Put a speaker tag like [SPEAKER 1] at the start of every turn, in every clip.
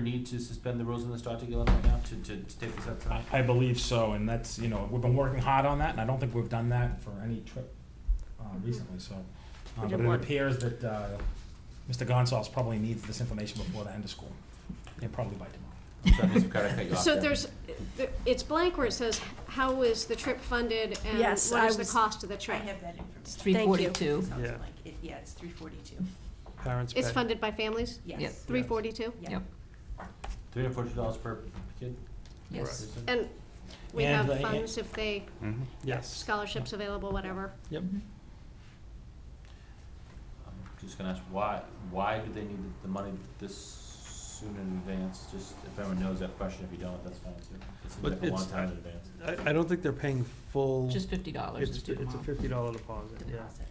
[SPEAKER 1] need to suspend the rules in the Strateg eleven right now to, to to take this up tonight?
[SPEAKER 2] I believe so, and that's, you know, we've been working hard on that, and I don't think we've done that for any trip uh, recently, so. uh,
[SPEAKER 3] Mm-hmm. We
[SPEAKER 2] But
[SPEAKER 3] did
[SPEAKER 2] it
[SPEAKER 3] one.
[SPEAKER 2] appears that uh, Mr. Gonzalez probably needs this information before the end of school, and probably by tomorrow.
[SPEAKER 1] I'm sorry, Ms. Picard, I cut you off
[SPEAKER 3] So
[SPEAKER 1] there.
[SPEAKER 4] there's, there- it's blank where it says, how is the trip funded and what
[SPEAKER 3] Yes,
[SPEAKER 4] is
[SPEAKER 3] I
[SPEAKER 4] the
[SPEAKER 3] was-
[SPEAKER 4] cost of the
[SPEAKER 5] I
[SPEAKER 4] trip?
[SPEAKER 5] have that information.
[SPEAKER 6] It's three
[SPEAKER 3] Thank you.
[SPEAKER 6] forty-two.
[SPEAKER 5] Sounds
[SPEAKER 7] Yeah.
[SPEAKER 5] like it- Yeah, it's three forty-two,
[SPEAKER 7] Parents
[SPEAKER 4] It's
[SPEAKER 7] pay.
[SPEAKER 4] funded by families,
[SPEAKER 6] Yeah.
[SPEAKER 5] yes.
[SPEAKER 4] three forty-two?
[SPEAKER 5] Yeah.
[SPEAKER 6] Yep,
[SPEAKER 1] Three hundred forty dollars per kid?
[SPEAKER 6] yes.
[SPEAKER 1] is it?
[SPEAKER 4] And we
[SPEAKER 2] And
[SPEAKER 4] have
[SPEAKER 2] the-
[SPEAKER 4] funds if they,
[SPEAKER 7] Mhm. Yes.
[SPEAKER 4] scholarships available, whatever.
[SPEAKER 7] Yep.
[SPEAKER 1] I'm just gonna ask, why, why do they need the- the money this soon in advance? Just, if everyone knows that question, if you don't, that's fine too. It seems
[SPEAKER 7] But
[SPEAKER 1] like a long
[SPEAKER 7] it's-
[SPEAKER 1] time in advance.
[SPEAKER 7] I, I don't think they're paying full.
[SPEAKER 6] Just fifty dollars
[SPEAKER 7] It's,
[SPEAKER 6] is due
[SPEAKER 7] it's a
[SPEAKER 6] tomorrow.
[SPEAKER 7] fifty dollar deposit, yeah.
[SPEAKER 5] Deposit.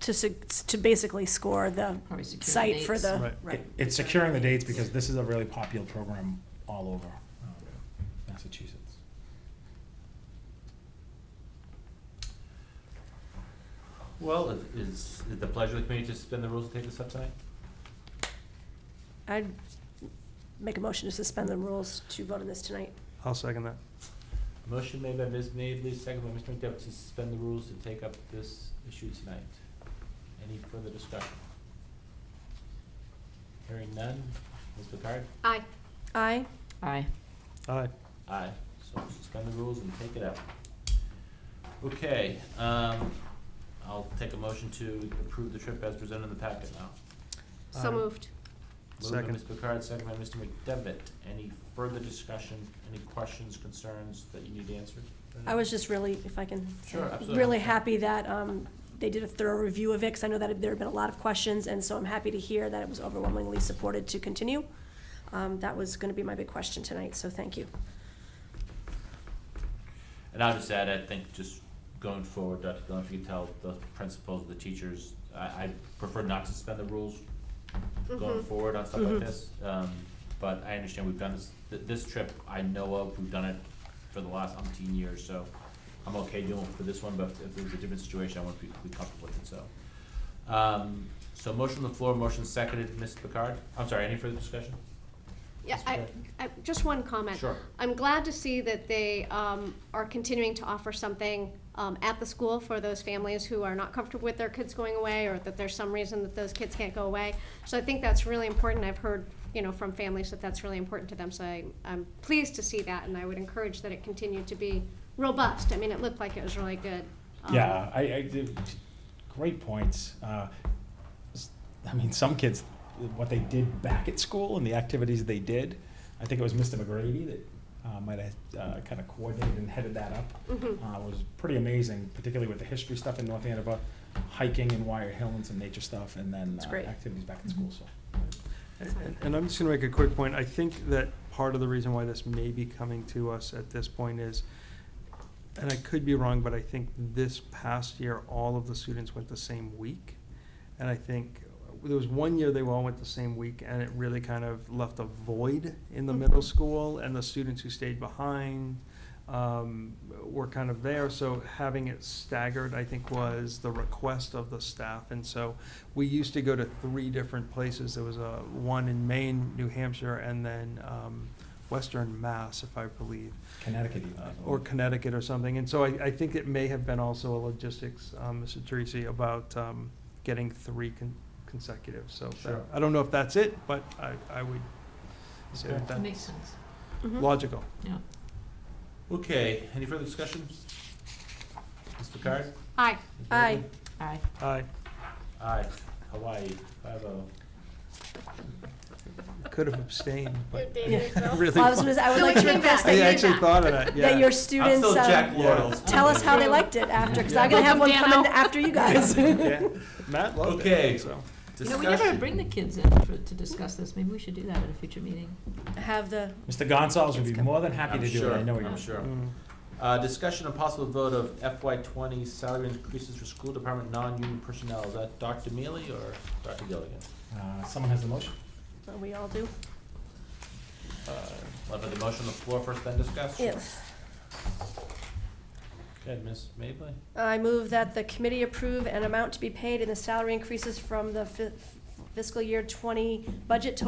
[SPEAKER 3] to, sec- to basically score the
[SPEAKER 6] Probably secure
[SPEAKER 3] site for
[SPEAKER 6] dates.
[SPEAKER 3] the.
[SPEAKER 7] Right.
[SPEAKER 5] Right.
[SPEAKER 2] It- It's securing the dates, because this is a really popular program all over um, Massachusetts.
[SPEAKER 1] Well, is, is it the pleasure of the committee to suspend the rules and take this up tonight?
[SPEAKER 3] I'd make a motion to suspend the rules to vote on this tonight.
[SPEAKER 7] I'll second that.
[SPEAKER 1] Motion made by Ms. Mably, second by Mr. McDevitt to suspend the rules to take up this issue tonight. Any further discussion? Hearing none, Ms. Picard?
[SPEAKER 4] Aye.
[SPEAKER 3] Aye.
[SPEAKER 6] Aye.
[SPEAKER 7] Aye.
[SPEAKER 1] Aye, so suspend the rules and take it up. Okay, um, I'll take a motion to approve the trip as presented in the packet now.
[SPEAKER 4] So
[SPEAKER 7] Aye.
[SPEAKER 4] moved.
[SPEAKER 1] Moved by
[SPEAKER 7] Second.
[SPEAKER 1] Ms. Picard, second by Mr. McDevitt. Any further discussion, any questions, concerns that you need answered?
[SPEAKER 3] I was just really, if I can. say,
[SPEAKER 1] Sure, absolutely.
[SPEAKER 3] Really happy that um, they did a thorough review of it, because I know that there have been a lot of questions, and so I'm happy to hear that it was overwhelmingly supported to continue. Um, That was going to be my big question tonight, so thank you.
[SPEAKER 1] And I'll just add, I think just going forward, Dr. Glenn, if you could tell the principals, the teachers, I, I prefer not to suspend the rules
[SPEAKER 3] Mm-hmm.
[SPEAKER 1] going
[SPEAKER 4] Mhm.
[SPEAKER 1] forward on stuff like
[SPEAKER 3] Mhm.
[SPEAKER 1] this. Um, but I understand we've done this, th- this trip I know of, we've done it for the last umpteen years, so I'm okay doing it for this one, but if it was a different situation, I wouldn't be, be comfortable with it, so. Um, so motion on the floor, motion seconded, Ms. Picard, I'm sorry, any further discussion?
[SPEAKER 4] Yeah,
[SPEAKER 1] Ms.
[SPEAKER 4] I,
[SPEAKER 1] Picard?
[SPEAKER 4] I, just one comment.
[SPEAKER 1] Sure.
[SPEAKER 4] I'm glad to see that they um, are continuing to offer something um, at the school for those families who are not comfortable with their kids going away, or that there's some reason that those kids can't go away. So I think that's really important. I've heard, you know, from families that that's really important to them. So I, I'm pleased to see that, and I would encourage that it continue to be robust. I mean, it looked like it was really good. um,
[SPEAKER 2] Yeah, I, I, did- great points. Uh, s- I mean, some kids, what they did back at school and the activities they did, I think it was Mr. McGrady that uh, might have uh, kind of coordinated and headed that up.
[SPEAKER 4] Mhm.
[SPEAKER 3] Mm-hmm.
[SPEAKER 2] Uh, was pretty amazing, particularly with the history stuff in North Andover, hiking in Wyatt Hill and some nature stuff, and then
[SPEAKER 3] That's
[SPEAKER 2] uh,
[SPEAKER 3] great. Mm-hmm.
[SPEAKER 2] activities back at school, so.
[SPEAKER 7] And- And I'm just gonna make a quick point. I think that part of the reason why this may be coming to us at this point is, and I could be wrong, but I think this past year, all of the students went the same week. And I think, there was one year they all went the same week, and it really kind of left a void in the middle school, and the students who stayed behind um, were kind of there. So having it staggered, I think, was the request of the staff. And so we used to go to three different places. There was a one in Maine, New Hampshire, and then um, Western Mass, if I believe,
[SPEAKER 2] Connecticut even. I
[SPEAKER 7] uh,
[SPEAKER 2] believe.
[SPEAKER 7] or Connecticut or something. And so I, I think it may have been also a logistics, um, Mr. Teresi, about um, getting three con- consecutive. So that-
[SPEAKER 1] Sure.
[SPEAKER 7] I don't know if that's it, but I, I would say
[SPEAKER 1] Okay.
[SPEAKER 7] that
[SPEAKER 6] That makes
[SPEAKER 7] that's
[SPEAKER 6] sense,
[SPEAKER 3] Mhm.
[SPEAKER 7] logical.
[SPEAKER 6] yeah.
[SPEAKER 1] Okay, any further discussion? Ms. Picard? Ms.
[SPEAKER 4] Aye.
[SPEAKER 3] Aye.
[SPEAKER 1] Mably?
[SPEAKER 6] Aye.
[SPEAKER 7] Aye.
[SPEAKER 1] Aye, Hawaii, five oh.
[SPEAKER 7] Could have abstained, but I
[SPEAKER 3] Well, I
[SPEAKER 7] really.
[SPEAKER 3] was gonna say, I would
[SPEAKER 4] No,
[SPEAKER 3] like
[SPEAKER 4] it
[SPEAKER 3] to
[SPEAKER 4] came back.
[SPEAKER 3] request that
[SPEAKER 7] I
[SPEAKER 4] It
[SPEAKER 3] your,
[SPEAKER 4] came
[SPEAKER 7] actually
[SPEAKER 4] back.
[SPEAKER 7] thought of that, yeah.
[SPEAKER 3] that your students,
[SPEAKER 2] uh,
[SPEAKER 1] I'm still Jack
[SPEAKER 3] um,
[SPEAKER 1] Laurels.
[SPEAKER 3] tell us how they liked it after, because I'm gonna have one
[SPEAKER 4] Welcome,
[SPEAKER 3] coming
[SPEAKER 4] Dano.
[SPEAKER 3] after you guys.
[SPEAKER 7] Yeah. Matt loved
[SPEAKER 1] Okay.
[SPEAKER 7] it, so.
[SPEAKER 6] You know, we never bring the kids in for, to discuss this, maybe we should do that at a future meeting.
[SPEAKER 3] Have the,
[SPEAKER 2] Mr. Gonzalez would be more than happy
[SPEAKER 1] I'm
[SPEAKER 2] to do it,
[SPEAKER 1] sure,
[SPEAKER 2] I know he
[SPEAKER 1] I'm
[SPEAKER 2] would.
[SPEAKER 1] sure.
[SPEAKER 7] Mm.
[SPEAKER 1] Uh, discussion and possible vote of FY twenty salary increases for school department non-union personnel. Is that Dr. Mealy or Dr. Gilligan?
[SPEAKER 2] Uh, Someone has the motion?
[SPEAKER 3] well, we all do.
[SPEAKER 1] Uh, Let the motion on the floor first, then discuss.
[SPEAKER 3] Yes.
[SPEAKER 1] Okay, Ms. Mably?
[SPEAKER 3] I move that the committee approve an amount to be paid in the salary increases from the fi- fiscal year twenty budget to